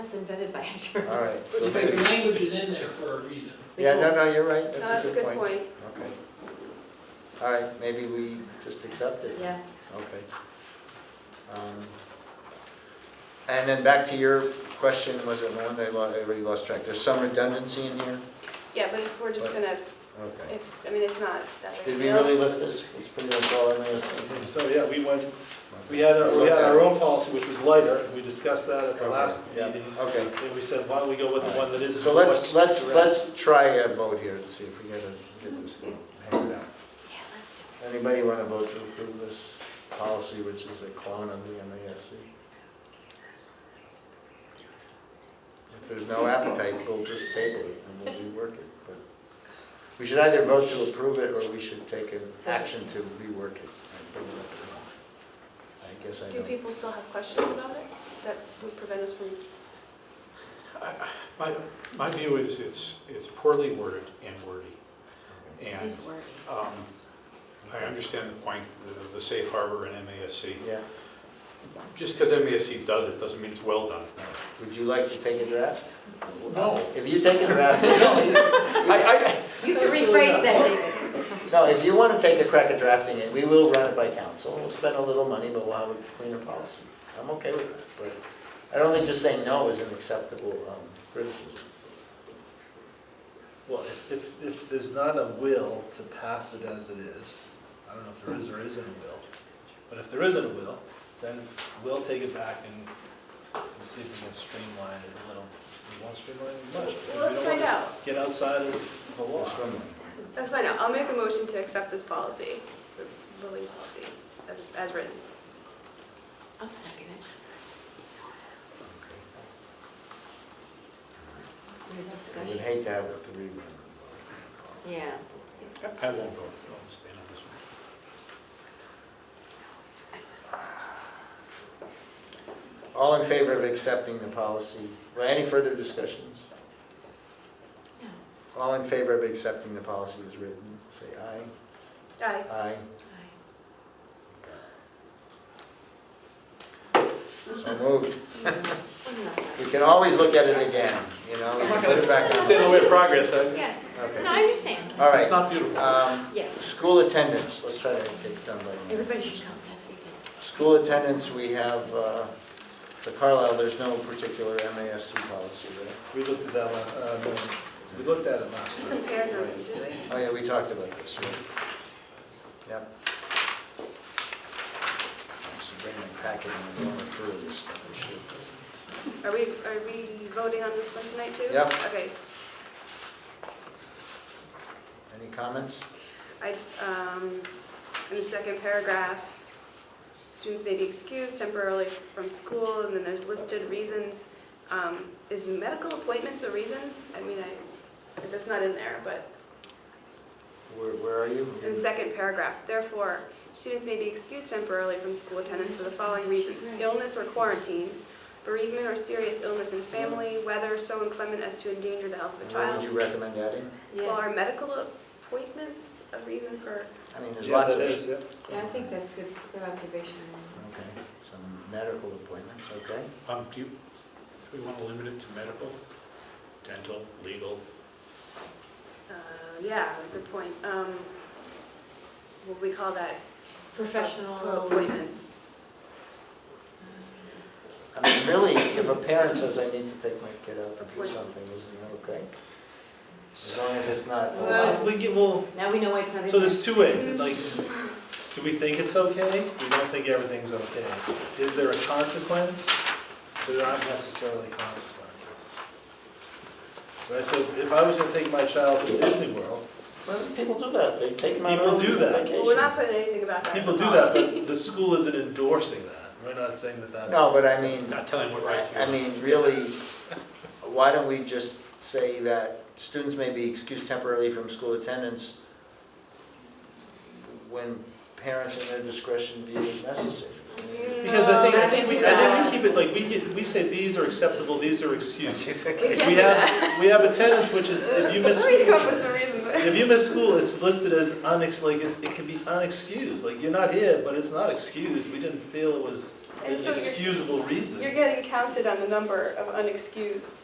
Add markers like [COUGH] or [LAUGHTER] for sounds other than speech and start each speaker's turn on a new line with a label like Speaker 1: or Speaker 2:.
Speaker 1: It's been vetted by a
Speaker 2: All
Speaker 1: attorney.
Speaker 2: right, so
Speaker 3: But
Speaker 2: maybe,
Speaker 3: the language is in there for a reason.
Speaker 2: yeah, no, no, you're right,
Speaker 4: No,
Speaker 2: that's a good point.
Speaker 4: point.
Speaker 2: Okay. All right, maybe we just accept it,
Speaker 1: Yeah,
Speaker 2: okay. Um, And then back to your question, was it one, they lost, everybody lost track, there's some redundancy in here?
Speaker 4: Yeah, but if we're just
Speaker 2: Right.
Speaker 4: gonna,
Speaker 2: Okay.
Speaker 4: if, I mean, it's not that big
Speaker 2: Did
Speaker 4: a
Speaker 2: we
Speaker 4: deal.
Speaker 2: really lift this? It's pretty much all in there. so-
Speaker 5: And So, yeah, we went, we had, our- we had our own policy, which was lighter, and we discussed that at the last
Speaker 2: Yeah,
Speaker 5: meeting.
Speaker 2: Okay,
Speaker 5: And we said, why don't we go with the one that is.
Speaker 2: so let's, let's,
Speaker 5: what's-
Speaker 2: let's try a vote here to see if we gotta get this thing hammered out.
Speaker 1: yeah, let's do
Speaker 2: Anybody want to vote to approve this policy, which is a clone of the MASC? If there's no appetite, we'll just table it and we'll rework it. But We should either vote to approve it or we should take an action to rework it. I don't know. I guess I
Speaker 4: Do
Speaker 2: don't.
Speaker 4: people still have questions about it that would prevent us from,
Speaker 6: My, my view is it's, it's poorly worded and wordy.
Speaker 1: it.
Speaker 6: And
Speaker 1: These words.
Speaker 6: um, I understand the point of the safe harbor and MASC.
Speaker 2: Yeah.
Speaker 6: Just because MASC does it, doesn't mean it's well done.
Speaker 2: Would you like to take a draft?
Speaker 6: No.
Speaker 2: If you take a draft, [LAUGHS] no,
Speaker 6: I,
Speaker 1: You have to
Speaker 2: Absolutely
Speaker 1: rephrase
Speaker 2: not.
Speaker 1: that, David.
Speaker 2: no, if you want to take a crack at drafting it, we will run it by council. We'll spend a little money, but we'll have a cleaner policy. I'm okay with that, but I don't think just saying no is an acceptable um, criticism.
Speaker 5: Well, if, if, if there's not a will to pass it as it is, I don't know if there is or isn't a will, but if there isn't a will, then we'll take it back and and see if we can streamline it a little. We won't streamline it much. because we
Speaker 4: Well, let's
Speaker 5: don't want
Speaker 4: find
Speaker 5: to
Speaker 4: out.
Speaker 5: Get outside of the law.
Speaker 2: That's one way.
Speaker 4: that's fine, I'll I'll make a motion to accept this policy, the bullying policy, as, as written.
Speaker 1: I'll second it. Any
Speaker 2: I would
Speaker 1: discussion?
Speaker 2: hate to have a three.
Speaker 1: Yeah.
Speaker 6: I, I won't vote, I'll abstain on this one.
Speaker 2: All in favor of accepting the policy? Well, Any further discussions?
Speaker 1: No.
Speaker 2: All in favor of accepting the policy as written, say
Speaker 4: Aye.
Speaker 2: aye. Aye.
Speaker 1: Aye.
Speaker 2: So moved.
Speaker 1: Wasn't that bad?
Speaker 2: We can always look at it again, you know? we can put it back on.
Speaker 5: Stand away from progress, I just,
Speaker 1: Yeah, no,
Speaker 2: Okay,
Speaker 1: I understand.
Speaker 2: all
Speaker 5: it's
Speaker 2: right.
Speaker 5: not beautiful.
Speaker 2: Um,
Speaker 1: Yes,
Speaker 2: School attendance, let's try to get it done by now.
Speaker 1: everybody should come, that's it.
Speaker 2: School attendance, we have, uh, for Carlisle, there's no particular MASC policy, right?
Speaker 5: We looked at that, la- uh, no, we looked at it last night.
Speaker 4: Compare them, do we?
Speaker 2: Oh, yeah, we talked about this, right? Yep. Actually, bring my packet and I'm going through this stuff, I should.
Speaker 4: Are we, are we voting on this one tonight too?
Speaker 2: Yeah.
Speaker 4: Okay,
Speaker 2: Any comments?
Speaker 4: I, um, in the second paragraph, students may be excused temporarily from school, and then there's listed reasons. Um, is medical appointments a reason? I mean, I, that's not in there, but
Speaker 2: Where, where are you?
Speaker 4: in the second paragraph, therefore, students may be excused temporarily from school attendance for the following reasons. Illness or quarantine, bereavement or serious illness in family, weather so inclement as to endanger the health of a
Speaker 2: And What would
Speaker 4: child.
Speaker 2: you recommend adding?
Speaker 4: Well,
Speaker 1: Yeah,
Speaker 4: are medical appointments a reason for,
Speaker 2: I mean, there's
Speaker 5: Yeah,
Speaker 2: lots of.
Speaker 5: that is, yeah.
Speaker 1: Yeah, I think that's good, good observation.
Speaker 2: Okay, some medical appointments, okay?
Speaker 6: Um, do you, do we want to limit it to medical, dental, legal?
Speaker 4: uh, yeah, good point. Um, what do we call that?
Speaker 1: Professional.
Speaker 4: Appointments.
Speaker 2: I mean, really, if a parent says, I need to take my kid out to do something, isn't that okay? As long as it's not a lot.
Speaker 5: Uh, we get, well,
Speaker 1: Now we know why it's not. in
Speaker 5: So
Speaker 1: there.
Speaker 5: there's two ways, like, do we think it's okay? We don't think everything's okay. Is there a consequence? There aren't necessarily consequences. Right, so if I was gonna take my child to Disney World,
Speaker 2: Well, people do that, they take them out
Speaker 5: People
Speaker 2: on
Speaker 5: do
Speaker 4: Well,
Speaker 5: that.
Speaker 4: we're
Speaker 2: vacation.
Speaker 4: not putting anything about that. in
Speaker 5: people
Speaker 4: the
Speaker 5: do that,
Speaker 4: policy.
Speaker 5: but the school isn't endorsing that. We're not saying that that's.
Speaker 2: No, but I mean,
Speaker 6: Not telling what rights you
Speaker 2: I
Speaker 6: have.
Speaker 2: mean, really, why don't we just say that students may be excused temporarily from school attendance when parents in their discretion view it necessary?
Speaker 5: Because I think,
Speaker 1: No,
Speaker 5: I think we, I
Speaker 1: that's
Speaker 5: think we keep it, like, we get, we say these are acceptable, these
Speaker 2: [LAUGHS]
Speaker 5: are excused.
Speaker 4: We can't
Speaker 5: We
Speaker 4: do that.
Speaker 5: have, we have attendance, which
Speaker 4: [LAUGHS]
Speaker 5: is, if you miss.
Speaker 4: Please come up with some reason. but- [LAUGHS]
Speaker 5: If you miss school, it's listed as unex, like, it, it could be unexcused, like, you're not here, but it's not excused, we didn't feel it was
Speaker 4: And so you're-
Speaker 5: excusable reason.
Speaker 4: You're getting counted on the number of unexcused